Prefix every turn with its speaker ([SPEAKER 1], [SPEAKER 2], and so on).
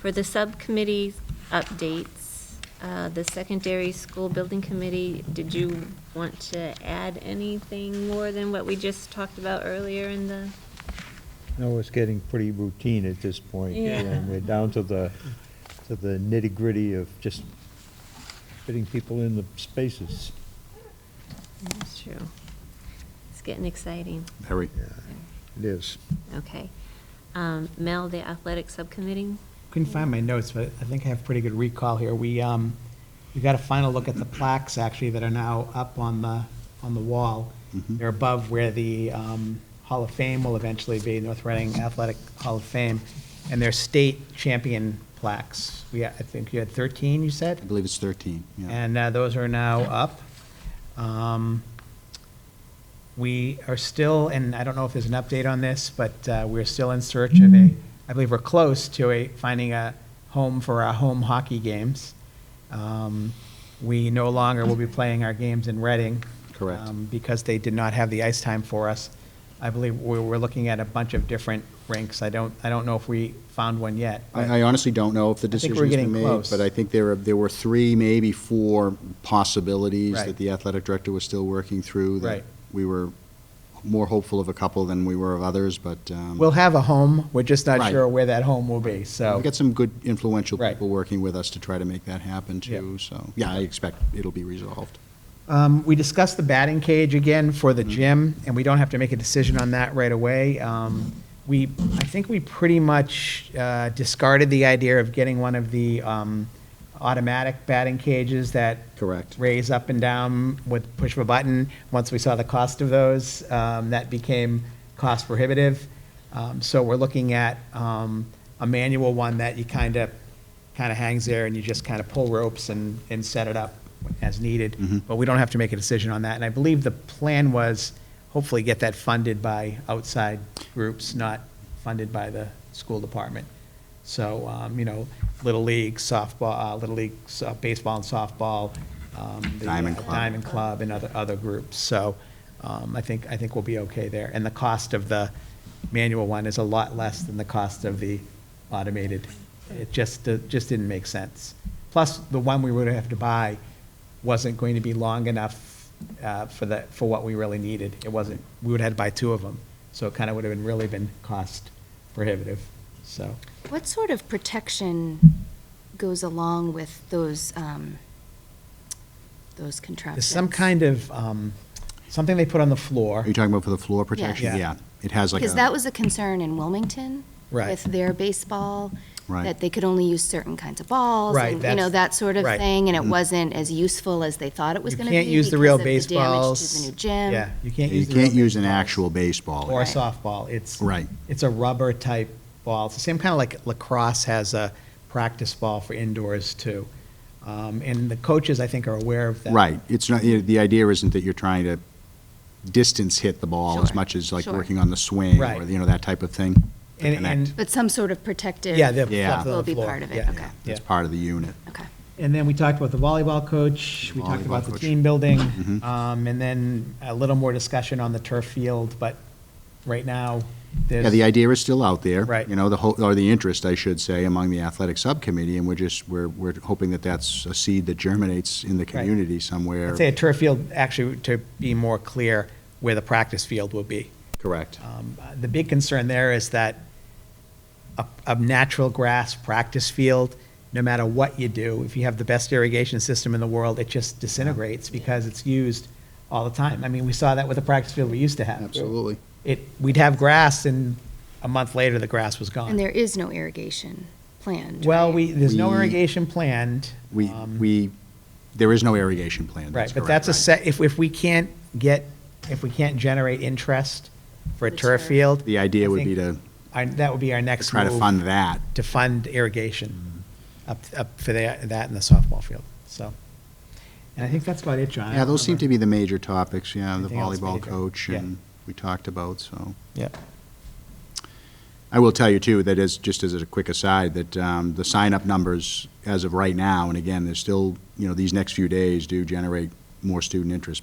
[SPEAKER 1] For the subcommittee updates, uh, the secondary school building committee, did you want to add anything more than what we just talked about earlier in the?
[SPEAKER 2] No, it's getting pretty routine at this point.
[SPEAKER 1] Yeah.
[SPEAKER 2] And we're down to the, to the nitty-gritty of just fitting people in the spaces.
[SPEAKER 1] That's true. It's getting exciting.
[SPEAKER 3] Harry?
[SPEAKER 2] It is.
[SPEAKER 1] Okay. Um, Mel, the athletic subcommittee?
[SPEAKER 4] Couldn't find my notes, but I think I have pretty good recall here. We, um, we got a final look at the plaques, actually, that are now up on the, on the wall. They're above where the, um, Hall of Fame will eventually be, North Reading Athletic Hall of Fame, and they're state champion plaques. We, had- I think you had thirteen, you said?
[SPEAKER 3] I believe it's 13, yeah.
[SPEAKER 4] And uh, those are now up. Um, We are still, and I don't know if there's an update on this, but uh, we're still in search of a, I believe we're close to a, finding a home for our home hockey games. Um, We no longer will be playing our games in Reading.
[SPEAKER 3] Correct.
[SPEAKER 4] um, Because they did not have the ice time for us. I believe we were looking at a bunch of different rinks. I don't, I don't know if we found one yet. but-
[SPEAKER 3] I I honestly don't know if the
[SPEAKER 4] think
[SPEAKER 3] decision's
[SPEAKER 4] we're
[SPEAKER 3] been made.
[SPEAKER 4] getting close.
[SPEAKER 3] But I think there, are- there were three, maybe four possibilities
[SPEAKER 4] Right.
[SPEAKER 3] that the athletic director was still working through. that
[SPEAKER 4] Right.
[SPEAKER 3] We were more hopeful of a couple than we were of others, but. um,
[SPEAKER 4] We'll have a home, we're just not
[SPEAKER 3] Right.
[SPEAKER 4] sure where that home will be, so.
[SPEAKER 3] We've got some good influential
[SPEAKER 4] Right.
[SPEAKER 3] people working with us to try to make that happen
[SPEAKER 4] Yeah.
[SPEAKER 3] too, so, yeah, I expect it'll be resolved.
[SPEAKER 4] Um, We discussed the batting cage again for the gym, and we don't have to make a decision on that right away. Um, We, I think we pretty much uh, discarded the idea of getting one of the um, automatic batting cages that
[SPEAKER 3] Correct.
[SPEAKER 4] raise up and down with push of a button. Once we saw the cost of those, um, that became cost prohibitive. Um, So we're looking at um, a manual one that you kind of, kind of hangs there and you just kind of pull ropes and, and set it up as needed. But we don't have to make a decision on that. And I believe the plan was hopefully get that funded by outside groups, not funded by the school department. So, um, you know, Little League softball, uh, Little League so- baseball and softball, um, the, uh,
[SPEAKER 3] Diamond Club.
[SPEAKER 4] Diamond Club and other, other groups. So, um, I think, I think we'll be okay there. And the cost of the manual one is a lot less than the cost of the automated. It just, it just didn't make sense. Plus, the one we would have to buy wasn't going to be long enough, uh, for the, for what we really needed. It wasn't, we would have had to buy two of them. So it kind of would have been, really been cost prohibitive, so.
[SPEAKER 5] What sort of protection goes along with those, um, those
[SPEAKER 4] There's
[SPEAKER 5] contraptions?
[SPEAKER 4] some kind of, um, something they put on the floor.
[SPEAKER 3] Are you talking about for the floor protection?
[SPEAKER 4] Yeah.
[SPEAKER 3] Yeah, it has like a.
[SPEAKER 5] Because that was a concern in Wilmington.
[SPEAKER 4] Right.
[SPEAKER 5] With their baseball.
[SPEAKER 3] Right.
[SPEAKER 5] That they could only use certain kinds of balls.
[SPEAKER 4] Right,
[SPEAKER 5] and, You know, that
[SPEAKER 4] that's-
[SPEAKER 5] sort of
[SPEAKER 4] right.
[SPEAKER 5] thing,
[SPEAKER 3] Mm-hmm.
[SPEAKER 5] and it wasn't as useful as they thought it was
[SPEAKER 4] You
[SPEAKER 5] gonna be.
[SPEAKER 4] can't use the real
[SPEAKER 5] because of the
[SPEAKER 4] baseballs.
[SPEAKER 5] damage to the new gym.
[SPEAKER 4] Yeah, you can't
[SPEAKER 3] You
[SPEAKER 4] use the real
[SPEAKER 3] can't use an
[SPEAKER 4] baseballs
[SPEAKER 3] actual baseball.
[SPEAKER 4] Or
[SPEAKER 5] Right.
[SPEAKER 4] softball, it's.
[SPEAKER 3] Right.
[SPEAKER 4] It's a rubber type ball, it's the same kind of like lacrosse has a practice ball for indoors too. Um, and the coaches, I think, are aware of that.
[SPEAKER 3] Right, it's not, you know, the idea isn't that you're trying to distance hit the ball as
[SPEAKER 5] Sure,
[SPEAKER 3] much as like
[SPEAKER 5] sure.
[SPEAKER 3] working on the swing
[SPEAKER 4] Right.
[SPEAKER 3] or, you know, that type of thing. to
[SPEAKER 4] And,
[SPEAKER 3] connect.
[SPEAKER 4] and,
[SPEAKER 5] But some sort of protective.
[SPEAKER 4] yeah, the.
[SPEAKER 3] Yeah.
[SPEAKER 4] the
[SPEAKER 5] Will be
[SPEAKER 4] floor,
[SPEAKER 5] part of it,
[SPEAKER 4] yeah,
[SPEAKER 5] okay.
[SPEAKER 4] yeah.
[SPEAKER 3] It's part of the unit.
[SPEAKER 5] Okay.
[SPEAKER 4] And then we talked about the volleyball coach, we talked
[SPEAKER 3] Volleyball
[SPEAKER 4] about the
[SPEAKER 3] coach. Mm-hmm.
[SPEAKER 4] team building, um, and then a little more discussion on the turf field, but right now, there's.
[SPEAKER 3] Yeah, the idea is still out there.
[SPEAKER 4] Right.
[SPEAKER 3] You know, the whole, or the interest, I should say, among the athletic subcommittee, and we're just, we're, we're hoping that that's a seed that germinates in the community somewhere.
[SPEAKER 4] I'd say a turf field, actually, to be more clear, where the practice field will be.
[SPEAKER 3] Correct.
[SPEAKER 4] Um, uh, The big concern there is that a, a natural grass practice field, no matter what you do, if you have the best irrigation system in the world, it just disintegrates because it's used all the time. I mean, we saw that with the practice field we used to have.
[SPEAKER 3] Absolutely.
[SPEAKER 4] It, we'd have grass and a month later, the grass was gone.
[SPEAKER 5] And there is no irrigation planned.
[SPEAKER 4] Well,
[SPEAKER 5] right?
[SPEAKER 4] we, there's no
[SPEAKER 3] We-
[SPEAKER 4] irrigation planned.
[SPEAKER 3] We,
[SPEAKER 4] um,
[SPEAKER 3] we, there is no irrigation plan.
[SPEAKER 4] Right, but
[SPEAKER 3] correct,
[SPEAKER 4] that's a
[SPEAKER 3] right.
[SPEAKER 4] set, if, if we can't get, if we can't generate interest for a
[SPEAKER 5] The
[SPEAKER 4] turf
[SPEAKER 5] turf.
[SPEAKER 4] field.
[SPEAKER 3] The idea
[SPEAKER 4] I
[SPEAKER 3] would
[SPEAKER 4] think
[SPEAKER 3] be to
[SPEAKER 4] our- That would be our next
[SPEAKER 3] try to
[SPEAKER 4] move,
[SPEAKER 3] fund that.
[SPEAKER 4] to fund irrigation up, up for the- that and the softball field, so. And I think that's about it, John. I
[SPEAKER 3] Yeah,
[SPEAKER 4] don't
[SPEAKER 3] those seem to
[SPEAKER 4] remember.
[SPEAKER 3] be the major topics, yeah, the
[SPEAKER 4] Anything else
[SPEAKER 3] volleyball
[SPEAKER 4] major?
[SPEAKER 3] coach
[SPEAKER 4] Yeah.
[SPEAKER 3] and we talked about, so.
[SPEAKER 4] Yep.
[SPEAKER 3] I will tell you too, that is, just as a quick aside, that um, the sign-up numbers as of right now, and again, there's still, you know, these next few days do generate more student interest,